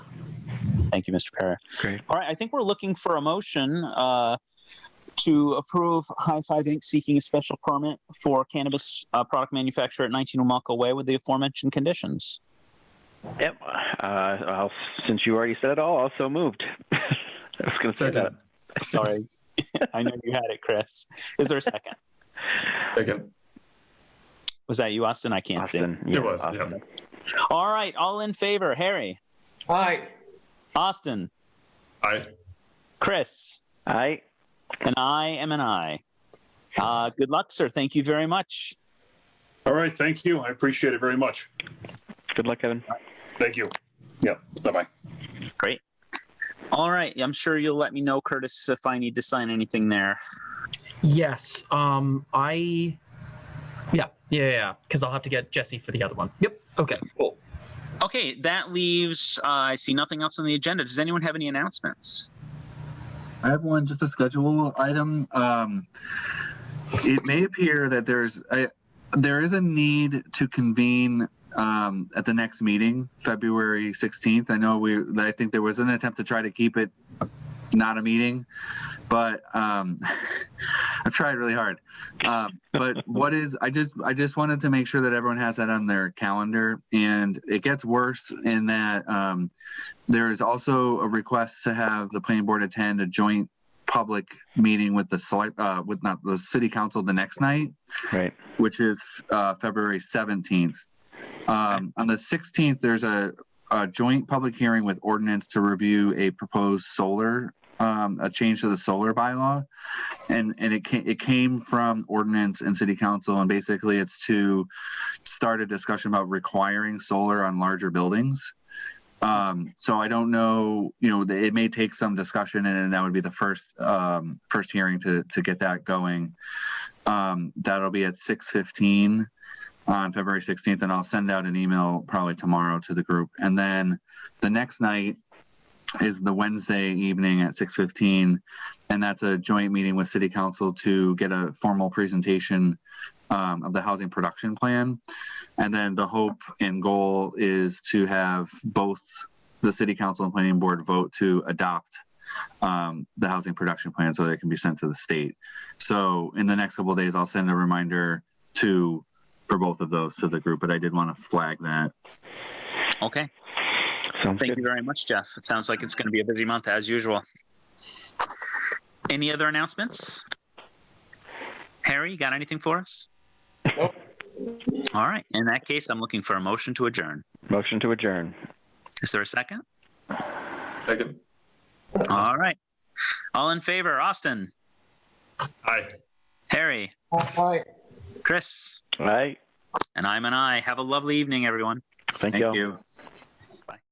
Thank you, Mr. Perry. Great. All right, I think we're looking for a motion uh, to approve High Five Inc. seeking a special permit for cannabis uh, product manufacturer at 19 Omalka Way with the aforementioned conditions. Yep. Uh, I'll, since you already said it all, also moved. I was going to say that. Second. Sorry, I know you had it, Chris. Is there a second? Second. Was that you, Austin? I can't Austin. It was, yeah. see. All right, all in favor. Harry, Aye. Austin, Aye. Chris, I, and I am an I. Uh, good luck, sir. Thank you very much. All right, thank you. I appreciate it very much. good luck, Evan. Thank you. Yep. Bye bye. All right. I'm sure you'll let me know, Curtis, if I need to sign anything there. Yes. Um. I. Yeah. Yeah. Yeah. Because I'll have to get Jesse for the other one. Yep. Okay. Cool. Okay. That leaves, uh, I see nothing else on the agenda. Does anyone have any announcements? I have one, just a schedule item. Um, it may appear that there's a, there is a need to convene um, at the next meeting, February 16th. I know we, I think there was an attempt to try to keep it not a meeting, but um, I've tried really hard. Um, but what is, I just, I just wanted to make sure that everyone has that on their calendar, and it gets worse in that. Um, there is also a request to have the planning board attend a joint public meeting with the select, uh, with not the city council the next night, Right. which is uh, February 17th. Um, on the 16th, there's a, a joint public hearing with ordinance to review a proposed solar, um, a change to the solar bylaw. And, and it came, it came from ordinance and city council. And basically it's to start a discussion about requiring solar on larger buildings. Um, so I don't know, you know, it may take some discussion and that would be the first, um, first hearing to, to get that going. Um, that'll be at 615 on February 16th, and I'll send out an email probably tomorrow to the group. And then the next night is the Wednesday evening at 6:15, and that's a joint meeting with City Council to get a formal presentation um, of the housing production plan. And then the hope and goal is to have both the City Council and Planning Board vote to adopt um, the housing production plan so that it can be sent to the state. So in the next couple of days, I'll send a reminder to for both of those to the group, but I did want to flag that. Okay. Sounds Thank good. you very much, Jeff. It sounds like it's going to be a busy month as usual. Any other announcements? Harry, you got anything for us? Nope. All right. In that case, I'm looking for a motion to adjourn. Motion to adjourn. Is there a second? Second. All right. All in favor, Austin, Aye. Harry, Aye. Chris, All right. and I'm an I. Have a lovely evening, everyone. Thank, Thank you. you.